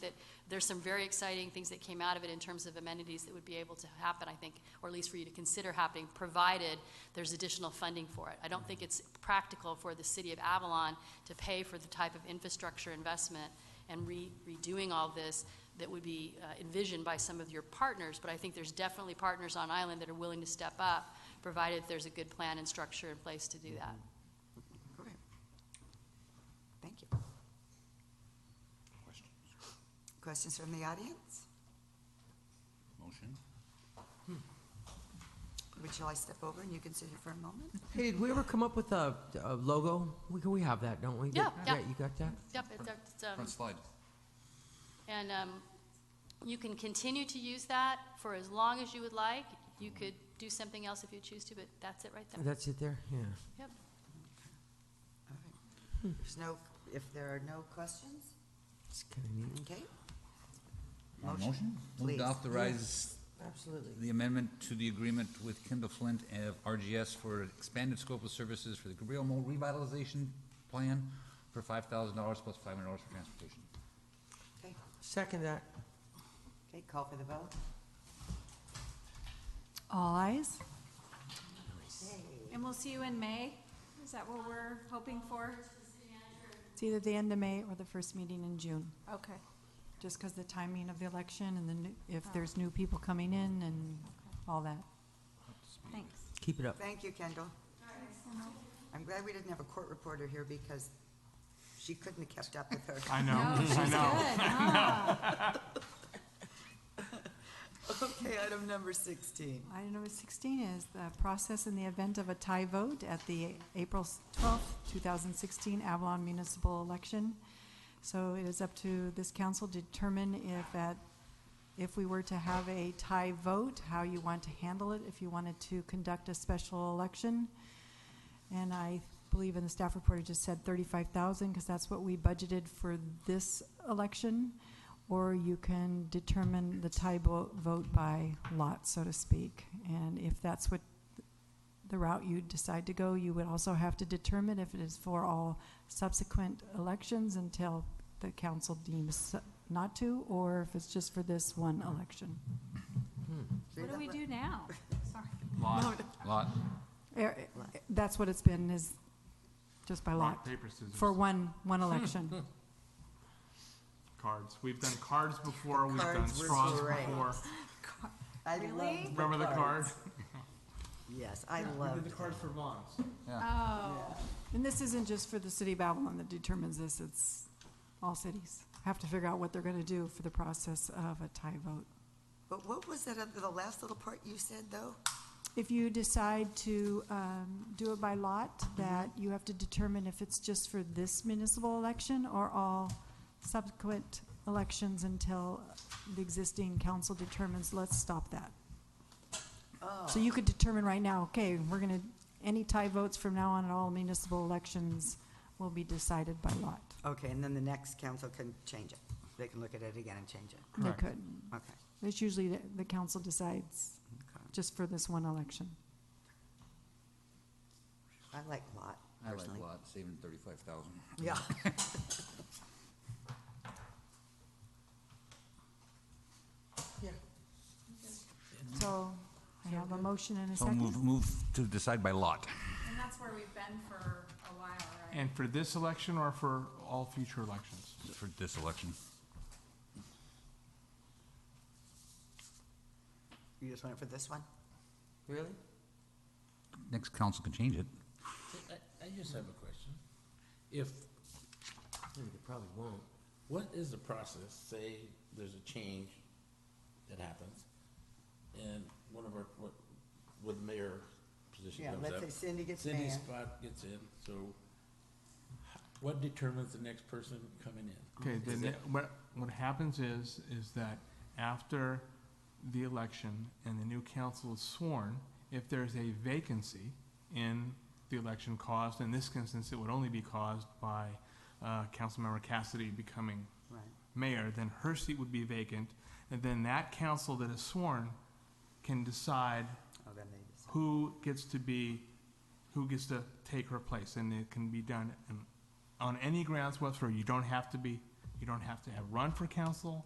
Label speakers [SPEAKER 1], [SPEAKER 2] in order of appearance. [SPEAKER 1] that there's some very exciting things that came out of it in terms of amenities that would be able to happen, I think, or at least for you to consider happening, provided there's additional funding for it. I don't think it's practical for the city of Avalon to pay for the type of infrastructure investment and re- redoing all this that would be uh, envisioned by some of your partners, but I think there's definitely partners on island that are willing to step up, provided there's a good plan and structure in place to do that.
[SPEAKER 2] Okay. Thank you.
[SPEAKER 3] Questions?
[SPEAKER 2] Questions from the audience?
[SPEAKER 3] Motion?
[SPEAKER 2] Would shall I step over and you can sit here for a moment?
[SPEAKER 4] Hey, did we ever come up with a, a logo? We, we have that, don't we?
[SPEAKER 1] Yeah, yeah.
[SPEAKER 4] You got that?
[SPEAKER 1] Yep, it- that's, um,
[SPEAKER 3] Front slide.
[SPEAKER 1] And um, you can continue to use that for as long as you would like. You could do something else if you choose to, but that's it right there.
[SPEAKER 4] That's it there? Yeah.
[SPEAKER 1] Yep.
[SPEAKER 2] All right. There's no, if there are no questions,
[SPEAKER 4] It's kind of neat.
[SPEAKER 2] okay?
[SPEAKER 3] On
[SPEAKER 2] uh, Motion,
[SPEAKER 3] Move
[SPEAKER 2] please.
[SPEAKER 3] to authorize
[SPEAKER 2] Absolutely.
[SPEAKER 3] the amendment to the agreement with Kendall Flint of RGS for expanded scope of services for the Cabrillo Mall revitalization plan for five thousand dollars plus five hundred dollars for transportation.
[SPEAKER 2] Okay,
[SPEAKER 4] Second that.
[SPEAKER 2] okay, call for the vote.
[SPEAKER 5] All eyes.
[SPEAKER 6] And we'll see you in May? Is that what we're hoping for?
[SPEAKER 5] It's either the end of May or the first meeting in June,
[SPEAKER 6] Okay.
[SPEAKER 5] just because the timing of the election and then if there's new people coming in and all that.
[SPEAKER 6] Thanks.
[SPEAKER 4] Keep it up.
[SPEAKER 2] Thank you, Kendall. I'm glad we didn't have a court reporter here because she couldn't have kept up with her.
[SPEAKER 7] I know, I know.
[SPEAKER 6] Good, huh?
[SPEAKER 2] Okay, item number sixteen.
[SPEAKER 5] Item number 16 is the process in the event of a tie vote at the April 12th, 2016 Avalon municipal election. So it is up to this council to determine if at, if we were to have a tie vote, how you want to handle it, if you wanted to conduct a special election. And I believe in the staff report, it just said thirty-five thousand, because that's what we budgeted for this election. Or you can determine the tie bo- vote by lot, so to speak. And if that's what the route you decide to go, you would also have to determine if it is for all subsequent elections until the council deems not to, or if it's just for this one election.
[SPEAKER 6] What do we do now? Sorry.
[SPEAKER 7] Lot,
[SPEAKER 3] Lot,
[SPEAKER 5] Er, That's what it's been, is just by
[SPEAKER 7] rock,
[SPEAKER 5] lot,
[SPEAKER 7] paper, scissors,
[SPEAKER 5] for one, one election.
[SPEAKER 7] cards. We've done cards before, we've done
[SPEAKER 2] Cards were
[SPEAKER 7] straws
[SPEAKER 2] great.
[SPEAKER 7] before.
[SPEAKER 2] I
[SPEAKER 6] Really?
[SPEAKER 2] love
[SPEAKER 7] Remember the card?
[SPEAKER 2] Yes, I love.
[SPEAKER 7] cards for bonds.
[SPEAKER 6] Oh,
[SPEAKER 5] And this isn't just for the city of Babylon that determines this, it's all cities have to figure out what they're gonna do for the process of a tie vote.
[SPEAKER 2] But what was that other, the last little part you said, though?
[SPEAKER 5] If you decide to, um, do it by lot, that you have to determine if it's just for this municipal election or all subsequent elections until the existing council determines, let's stop that. So you could determine right now, okay, we're gonna, any tie votes from now on at all municipal elections will be decided by lot.
[SPEAKER 2] Okay, and then the next council can change it. They can look at it again and change it.
[SPEAKER 5] They
[SPEAKER 7] Correct.
[SPEAKER 5] could.
[SPEAKER 2] Okay.
[SPEAKER 5] It's usually the, the council decides
[SPEAKER 2] Okay.
[SPEAKER 5] just for this one election.
[SPEAKER 2] I like lot,
[SPEAKER 3] I like
[SPEAKER 2] personally.
[SPEAKER 3] lot, saving thirty-five thousand.
[SPEAKER 2] Yeah.
[SPEAKER 5] So I have a motion and a
[SPEAKER 3] So move,
[SPEAKER 5] second.
[SPEAKER 3] move to decide by lot.
[SPEAKER 6] and that's where we've been for a while, right?
[SPEAKER 7] And for this election or for all future elections?
[SPEAKER 3] for this election.
[SPEAKER 2] You just want it for this one?
[SPEAKER 4] Really?
[SPEAKER 3] Next council can change it.
[SPEAKER 8] I, I just have a question. If, they probably won't, what is the process, say there's a change that happens, and one of our, what, with the mayor position
[SPEAKER 2] Yeah,
[SPEAKER 8] comes up?
[SPEAKER 2] let's say Cindy gets
[SPEAKER 8] Cindy's
[SPEAKER 2] mayor.
[SPEAKER 8] spot gets in, so h- what determines the next person coming in?
[SPEAKER 7] Okay,
[SPEAKER 8] Is
[SPEAKER 7] then
[SPEAKER 8] it-
[SPEAKER 7] what, what happens is, is that after the election and the new council is sworn, if there's a vacancy in the election caused, in this instance, it would only be caused by, uh, Councilmember Cassidy becoming
[SPEAKER 2] Right.
[SPEAKER 7] mayor, then her seat would be vacant, and then that council that is sworn can decide
[SPEAKER 2] Oh, then they just,
[SPEAKER 7] who gets to be, who gets to take her place, and it can be done in- on any grounds whatsoever. You don't have to be, you You don't have to have run for council.